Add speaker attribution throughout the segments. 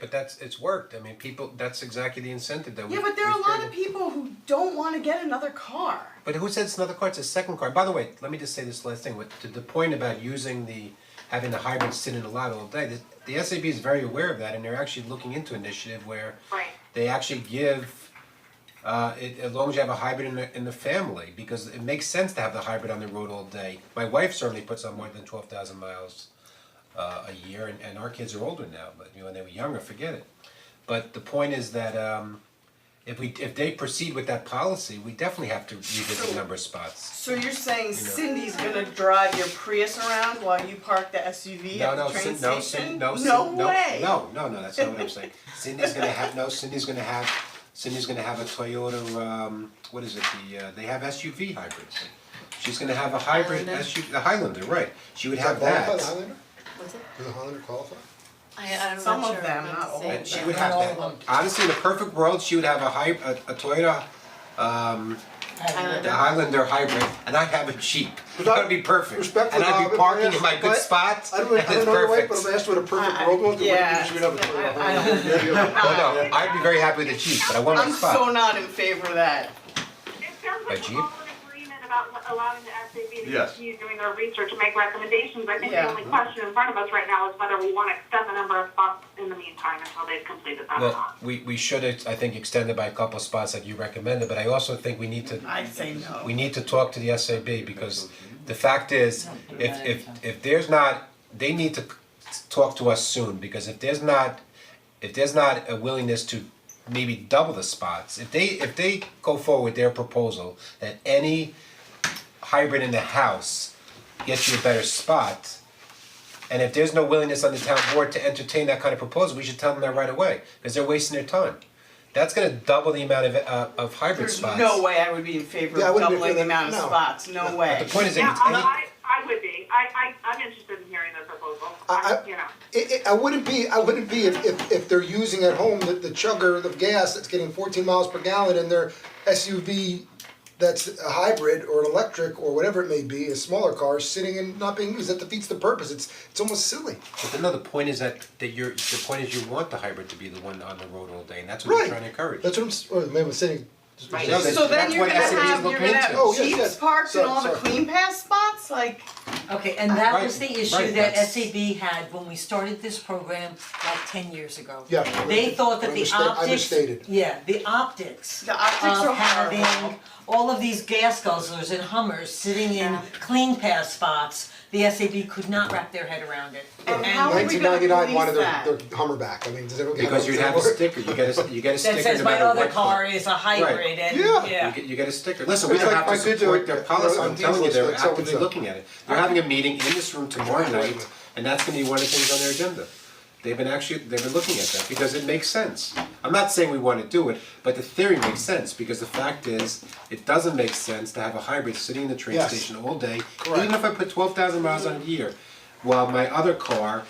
Speaker 1: But that's, it's worked, I mean, people, that's exactly the incentive that we
Speaker 2: Yeah, but there are a
Speaker 1: we
Speaker 2: lot
Speaker 1: created.
Speaker 2: of people who don't wanna get another car.
Speaker 1: But who said it's another car, it's a second car, by the way, let me just say this last thing, with to the point about using the, having the hybrid sit in the lot all day, the the SAB is very aware of that, and they're actually looking into initiative where
Speaker 3: Right.
Speaker 1: they actually give, uh, it, as long as you have a hybrid in the, in the family, because it makes sense to have the hybrid on the road all day. My wife certainly puts on more than twelve thousand miles, uh, a year, and, and our kids are older now, but you know, when they were younger, forget it. But the point is that, um, if we, if they proceed with that policy, we definitely have to revisit the number of spots.
Speaker 2: So you're saying Cindy's gonna drive your Prius around while you park the SUV
Speaker 1: No,
Speaker 2: at the
Speaker 1: no,
Speaker 2: train
Speaker 1: Cindy, no, Cindy,
Speaker 2: station?
Speaker 1: no, Cindy, no,
Speaker 2: way.
Speaker 1: no, no, no, that's not what I'm saying. Cindy's gonna have, no, Cindy's gonna have, Cindy's gonna have a Toyota, um, what is it, the, uh, they have SUV hybrids. She's gonna have a hybrid
Speaker 4: Highlander.
Speaker 1: SUV, the Highlander, right, she would have
Speaker 5: Qualify
Speaker 1: that.
Speaker 5: the Highlander?
Speaker 4: What's it?
Speaker 5: Does the Highlander qualify?
Speaker 4: I, I'm
Speaker 2: Some
Speaker 4: not
Speaker 2: of
Speaker 4: sure.
Speaker 2: them,
Speaker 4: I'm
Speaker 2: not all
Speaker 4: saying.
Speaker 1: And she would
Speaker 4: Not
Speaker 1: have
Speaker 4: all
Speaker 1: that,
Speaker 4: of them.
Speaker 1: honestly, in a perfect world, she would have a hy- a, a Toyota, um, the
Speaker 4: Highlander.
Speaker 1: Highlander hybrid, and I'd have a Jeep,
Speaker 5: But
Speaker 1: that
Speaker 5: I-
Speaker 1: would be perfect,
Speaker 5: respectfully,
Speaker 1: and I'd
Speaker 5: Bob,
Speaker 1: be
Speaker 5: if
Speaker 1: parking
Speaker 5: I-
Speaker 1: in my
Speaker 5: I-
Speaker 1: good spots,
Speaker 5: I
Speaker 1: and it's
Speaker 5: don't,
Speaker 1: perfect.
Speaker 5: I don't know your wife, but if I asked what a perfect world was, the way
Speaker 2: Uh, yeah.
Speaker 5: you should have a Toyota
Speaker 2: I
Speaker 5: Highlander.
Speaker 2: don't,
Speaker 1: Oh, no, I'd be very happy with a Jeep, but I want my
Speaker 2: I'm
Speaker 1: spot.
Speaker 2: so not in favor of that.
Speaker 3: It sounds
Speaker 1: A
Speaker 3: like
Speaker 1: Jeep?
Speaker 3: we're all in agreement about lo- allowing the SAB to
Speaker 6: Yes.
Speaker 3: continue doing their research and make recommendations. I think the
Speaker 2: Yeah.
Speaker 3: only question in front of us right now is whether we want to extend the number of spots in the meantime until they've completed that or
Speaker 1: Well,
Speaker 3: not.
Speaker 1: we we should, I think, extend it by a couple of spots like you recommended, but I also think we need to,
Speaker 2: I'd say no.
Speaker 1: we need to talk to the SAB because the fact is, if if if there's not, they need to talk to us soon, because if there's not, if there's not a willingness to maybe double the spots, if they if they go forward with their proposal that any hybrid in the house gets you a better spot, and if there's no willingness on the town board to entertain that kind of proposal, we should tell them that right away, because they're wasting their time. That's gonna double the amount of uh of hybrid
Speaker 2: There's
Speaker 1: spots.
Speaker 2: no way I would be in favor
Speaker 5: Yeah, I
Speaker 2: of
Speaker 5: wouldn't be
Speaker 2: doubling the
Speaker 5: for that.
Speaker 2: amount of
Speaker 5: No.
Speaker 2: spots, no way.
Speaker 1: The point is, if
Speaker 3: Yeah,
Speaker 1: it's any,
Speaker 3: I, I I would be. I, I, I'm interested in hearing their proposal.
Speaker 5: I-
Speaker 3: I,
Speaker 5: I-
Speaker 3: you know.
Speaker 5: It, it, I wouldn't be, I wouldn't be if, if, if they're using at home the, the chugger of gas that's getting fourteen miles per gallon and their SUV that's a hybrid or an electric or whatever it may be, a smaller car sitting and not being used, that defeats the purpose, it's, it's almost silly.
Speaker 1: but no, the point is that that you're, the point is you want the hybrid to be the one on the road all day, and that's what you're trying to encourage.
Speaker 5: That's what I'm, s- oh, maybe I'm saying. just-
Speaker 1: Right.
Speaker 5: just-
Speaker 1: That's
Speaker 2: So then you're
Speaker 1: what
Speaker 2: gonna
Speaker 1: SAB is
Speaker 2: have, you're
Speaker 1: looking
Speaker 2: gonna
Speaker 1: into.
Speaker 5: Oh,
Speaker 2: have
Speaker 5: yes, yes.
Speaker 2: Jeeps parked in
Speaker 5: Sorry,
Speaker 2: all the
Speaker 5: sorry.
Speaker 2: clean pass spots, like,
Speaker 4: Okay, and that
Speaker 1: Right,
Speaker 4: was the
Speaker 1: right,
Speaker 4: issue that
Speaker 1: that's-
Speaker 4: SAB had when we started this program like ten years ago.
Speaker 5: Yeah.
Speaker 4: They thought that the
Speaker 5: Understa-
Speaker 4: optics,
Speaker 5: understated.
Speaker 4: yeah, the optics
Speaker 2: The optics are
Speaker 4: of
Speaker 2: horrible.
Speaker 4: having all of these gas guzzlers and Hummers sitting in clean pass spots, the SAB could not wrap their head around it.
Speaker 2: and how are we
Speaker 5: Nineteen
Speaker 2: gonna police that?
Speaker 5: ninety-nine wanted their, their Hummer back, I mean, does everyone?
Speaker 1: Because you'd have a sticker, you get a, you get a sticker
Speaker 4: That
Speaker 1: no
Speaker 4: says my
Speaker 1: matter
Speaker 4: other
Speaker 1: what
Speaker 4: car is a hybrid and,
Speaker 5: Yeah.
Speaker 4: yeah.
Speaker 1: You get, you get a sticker, listen, we
Speaker 5: It's
Speaker 1: don't
Speaker 5: like
Speaker 1: have to
Speaker 5: my good
Speaker 1: support
Speaker 5: joke,
Speaker 1: their
Speaker 5: uh,
Speaker 1: policy,
Speaker 5: on
Speaker 1: I'm telling you,
Speaker 5: diesel
Speaker 1: they're
Speaker 5: stick, so-and-so.
Speaker 1: actively looking at it. They're having a meeting in this room tomorrow night, and that's gonna be one of the things on their agenda. They've been actually, they've been looking at that, because it makes sense. I'm not saying we wanna do it, but the theory makes sense, because the fact is, it doesn't make sense to have a hybrid sitting in the train
Speaker 5: Yes.
Speaker 1: station all day,
Speaker 5: Correct.
Speaker 1: even if I put twelve thousand miles on a year, while my other car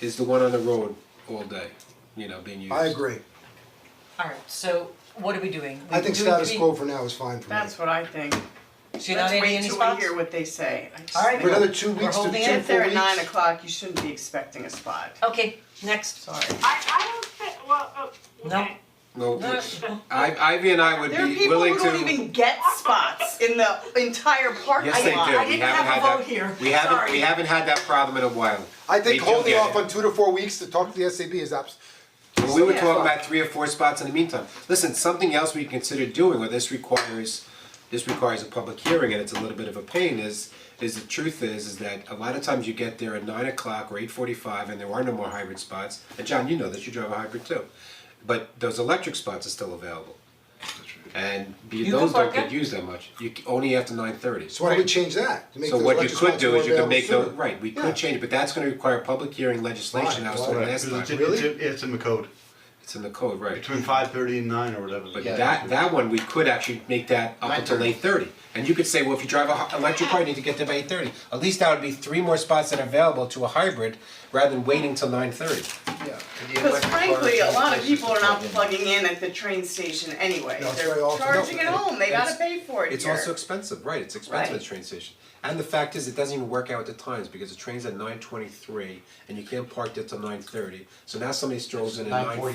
Speaker 1: is the one on the road all day, you know, being used.
Speaker 5: I agree,
Speaker 4: Alright, so what are we doing?
Speaker 5: I think
Speaker 4: Do
Speaker 5: status
Speaker 4: we-
Speaker 5: quo for now is fine for me.
Speaker 2: That's what I think.
Speaker 4: So you're not adding any spots?
Speaker 2: Let's wait till we hear what they say. I just
Speaker 4: All right.
Speaker 2: think-
Speaker 5: For another two
Speaker 4: We're
Speaker 5: weeks to two, four
Speaker 4: holding
Speaker 5: weeks.
Speaker 4: it
Speaker 2: If they're at nine o'clock, you shouldn't be expecting a spot.
Speaker 4: Okay, next.
Speaker 2: Sorry.
Speaker 3: I, I don't think, well, oh,
Speaker 4: No.
Speaker 3: okay.
Speaker 1: No,
Speaker 4: No.
Speaker 1: I, Ivy and I would
Speaker 2: There are
Speaker 1: be
Speaker 2: people
Speaker 1: willing to.
Speaker 2: who don't even get spots in the entire parking lot.
Speaker 1: Yes, they do.
Speaker 4: I
Speaker 1: We
Speaker 4: didn't
Speaker 1: haven't
Speaker 4: have a
Speaker 1: had
Speaker 4: vote
Speaker 1: that-
Speaker 4: here.
Speaker 1: We haven't, we
Speaker 4: Sorry.
Speaker 1: haven't had that problem in a while.
Speaker 5: I
Speaker 1: They
Speaker 5: think
Speaker 1: do
Speaker 5: holding
Speaker 1: get
Speaker 5: off
Speaker 1: it.
Speaker 5: on two to four weeks to talk to the SAB is abs-
Speaker 1: Well, we were
Speaker 5: Yeah.
Speaker 1: talking about three or four spots in the meantime. Listen, something else we consider doing, or this requires, this requires a public hearing and it's a little bit of a pain, is, is the truth is, is that a lot of times you get there at nine o'clock or eight forty-five and there are no more hybrid spots. And John, you know this, you drive a hybrid too. But those electric spots are still available. And be-
Speaker 4: can
Speaker 1: those don't
Speaker 4: park
Speaker 1: get
Speaker 4: it?
Speaker 1: used that much, you, c- only after nine thirty.
Speaker 5: So why don't we change that? To make
Speaker 1: So
Speaker 5: those
Speaker 1: what you
Speaker 5: electric
Speaker 1: could
Speaker 5: spots
Speaker 1: do
Speaker 5: more
Speaker 1: is you can
Speaker 5: available
Speaker 1: make those,
Speaker 5: sooner.
Speaker 1: right, we
Speaker 5: Yeah.
Speaker 1: could change it, but that's gonna require public hearing legislation, I was
Speaker 5: Why?
Speaker 1: talking
Speaker 5: Why?
Speaker 1: last time.
Speaker 6: It's, it's, it's in the code.
Speaker 1: it's in the code, right?
Speaker 6: Between five thirty and nine or whatever.
Speaker 1: But that, that one, we could actually make that up until eight thirty. And you could say, well, if you drive a hy- electric car, you need to get there by eight thirty. At least that would be three more spots that are available to a hybrid rather than waiting till nine thirty.
Speaker 5: yeah.
Speaker 2: Because frankly, a lot of people are not plugging in at the train station anyway,
Speaker 5: No, it's
Speaker 2: they're
Speaker 5: very often-
Speaker 2: charging at
Speaker 1: No,
Speaker 2: home, they gotta
Speaker 1: it's-
Speaker 2: pay for it
Speaker 1: It's
Speaker 2: here.
Speaker 1: also expensive, right, it's expensive at
Speaker 2: Right.
Speaker 1: the train station. And the fact is, it doesn't even work out with the times because the train's at nine twenty-three and you can't park there till nine thirty. So now somebody strolls in at nine
Speaker 6: 9:40.